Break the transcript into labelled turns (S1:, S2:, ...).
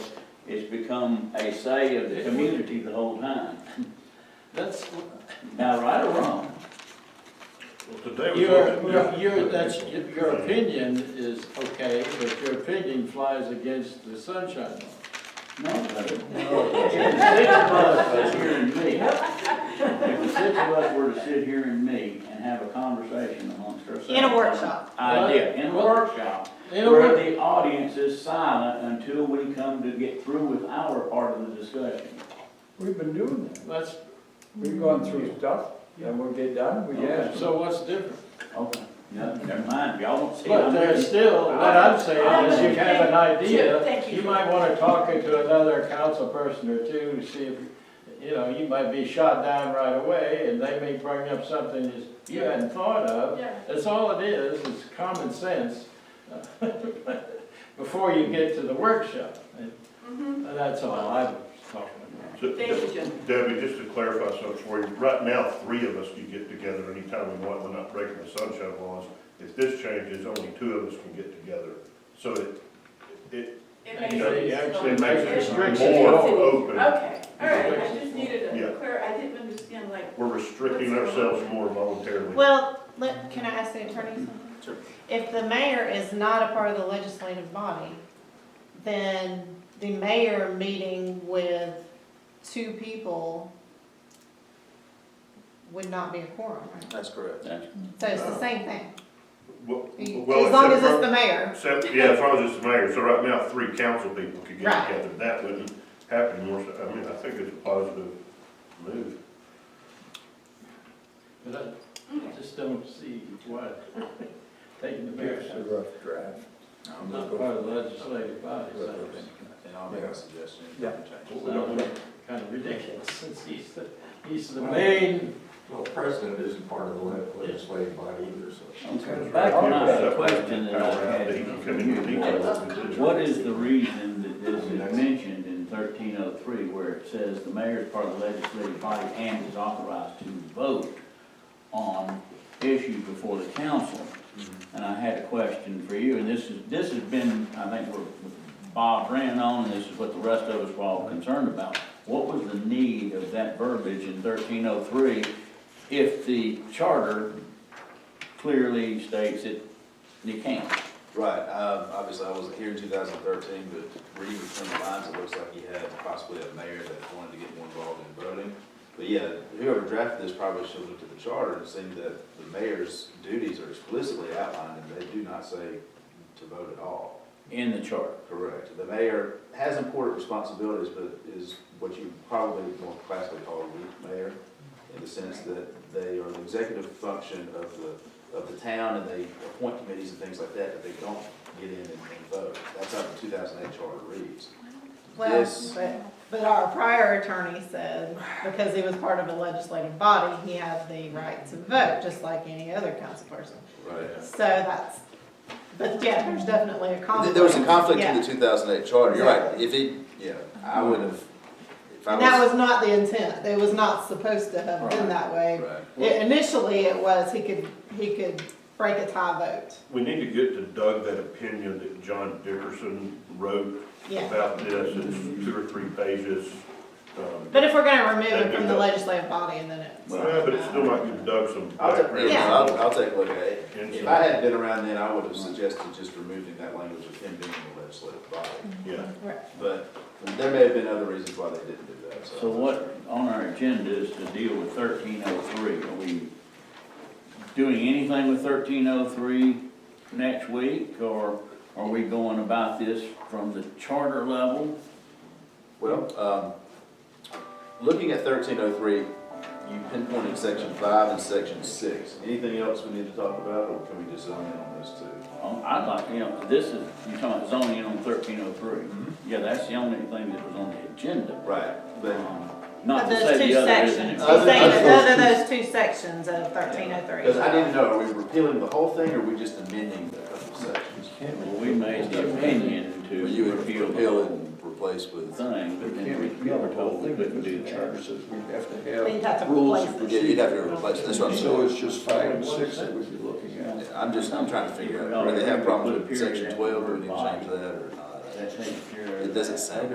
S1: it's become a say of the community the whole time.
S2: That's,
S1: Now, right or wrong?
S3: Well, today was.
S2: your,
S3: looking different
S2: your,
S3: than
S2: that's,
S3: April.
S2: your opinion is okay, but your opinion flies against the sunshine law.
S1: No. If the six of us were here and me, if the six of us were to sit here and me and have a conversation amongst ourselves.
S4: In a workshop.
S1: Idea, in a workshop,
S2: You know
S1: where
S2: what?
S1: the audience is silent until we come to get through with our part of the discussion.
S5: We've been doing that.
S2: That's,
S5: We've gone through stuff, and we'll get done, we
S2: yeah,
S5: ask.
S2: so what's different?
S1: Okay, no, never mind, y'all won't see. it.
S2: But
S1: I'm
S2: there's
S1: just-
S2: still, what I'm saying is you
S4: Thank-
S2: have an idea,
S4: thank you.
S2: you might wanna talk to another council person or two to see if, you know, you might be shot down right away and they may bring up something that you hadn't thought of.
S4: Yeah.
S2: That's all it is, is common sense before you get to the workshop. And Uh, that's all I was talking about.
S3: So,
S4: Thank you, Jim.
S3: Debbie, just to clarify something for you, right now, three of us can get together anytime we want, we're not breaking the sunshine laws. If this changes, only two of us can get together, so it, it,
S2: You know, you actually
S3: it makes
S2: Restrictions.
S3: it more open.
S4: Okay, all right, I just needed
S3: Yeah.
S4: a clear, I didn't understand like
S3: We're restricting ourselves more voluntarily.
S6: Well, let, can I ask the attorney something? If the mayor is not a part of the legislative body, then the mayor meeting with two people would not be a quorum, right?
S7: That's correct.
S1: That's
S6: So it's the same thing,
S3: Well,
S6: You-
S3: well,
S6: as long as
S3: except
S6: it's
S3: for-
S6: the mayor.
S3: Except, yeah, if I was just the mayor, so right now, three council people could get
S6: Right.
S3: together, that wouldn't happen more, so, I mean, I think it's a positive move.
S2: But I just don't see why taking the mayor's,
S5: It's a rough draft.
S7: I'm
S2: not
S7: gonna
S2: part
S7: go-
S2: of the legislative body, so it's-
S7: And I'll make a suggestion. if
S5: Yeah.
S7: you change it.
S2: Sounds kind of ridiculous, since he's the, he's the main,
S8: Well, the president isn't part of the le- legislative body either, so.
S1: Okay, back to my question that I had.
S3: You come in with details and do it.
S1: What is the reason that this is mentioned in thirteen oh three where it says the mayor is part of the legislative body and is authorized to vote on issues before the council? And I had a question for you, and this is, this has been, I think we're, Bob ran on, and this is what the rest of us were all concerned about. What was the need of that verbiage in thirteen oh three if the charter clearly states it, you can't?
S7: Right, um, obviously, I wasn't here in two thousand thirteen, but reading between the lines, it looks like he had possibly a mayor that wanted to get more involved in voting. But yeah, whoever drafted this probably should have looked at the charter and seen that the mayor's duties are explicitly outlined, and they do not say to vote at all.
S1: in the chart.
S7: Correct. The mayor has important responsibilities, but is what you probably more classically call a weak mayor, in the sense that they are the executive function of the, of the town, and they appoint committees and things like that, but they don't get in and and vote. That's how the two thousand eight charter reads.
S6: Well,
S7: This-
S6: but, but our prior attorney said, because he was part of a legislative body, he had the right to vote, just like any other council person.
S7: Right.
S6: So that's, but yeah, there's definitely a conflict.
S7: There was a conflict
S6: Yeah.
S7: in the two thousand eight charter, you're right. If he, yeah, I would have, if I
S6: And
S7: was.
S6: that was not the intent, it was not supposed to have been that way.
S7: Right.
S6: It- Initially, it was, he could, he could break a tie vote,
S3: We need to get to Doug that opinion that John Dickerson wrote
S6: yeah.
S3: about this, it's two or three pages. um,
S6: But if we're gonna remove it from the legislative body, and then it's.
S3: Well, but it still might give Doug some
S7: I'll take,
S3: background.
S6: Yeah.
S7: I'll, I'll take a look at it.
S3: And
S7: If
S3: so-
S7: I had been around then, I would have suggested just removing that language of him being in the legislative body.
S3: Yeah.
S6: Right.
S7: But there may have been other reasons why they didn't do that, so.
S1: So what on our agenda is to deal with thirteen oh three? Are we doing anything with thirteen oh three next week? Or are we going about this from the charter level?
S7: Well, um, looking at thirteen oh three, you pinpointed section five and section six. Anything else we need to talk about, or can we just zone in on those two?
S1: Um, I'd like, you know, this is, you're talking about zoning on thirteen oh three. Yeah, that's the only thing that was on the agenda. Um,
S7: Right, but,
S1: Not to
S6: Of
S1: say
S6: those two
S1: the other isn't.
S6: sections, he's
S7: Other-
S6: saying
S7: other
S6: that those two sections of thirteen oh three.
S7: because I need to know, are we repealing the whole thing, or are we just amending the couple sections?
S1: Well, we made the opinion to
S7: Well, you would
S1: repeal the
S7: repeal
S1: whole
S7: and replace with.
S1: thing, but
S5: We can't
S1: then we
S5: repeal
S1: were
S5: the whole
S1: told we
S5: thing,
S1: couldn't
S5: but
S1: do
S5: the
S1: that.
S5: charter says we have
S6: You'd
S5: to
S6: have to
S5: have rules.
S6: replace
S5: of
S6: it.
S7: Yeah,
S5: procedure.
S7: you'd have to replace, it. that's what I'm saying.
S5: So it's just five and six that we'd be looking at.
S7: I'm just, I'm trying to figure out, whether they have problems with section twelve, or we need to change that or not?
S1: That takes care of.
S7: It doesn't sound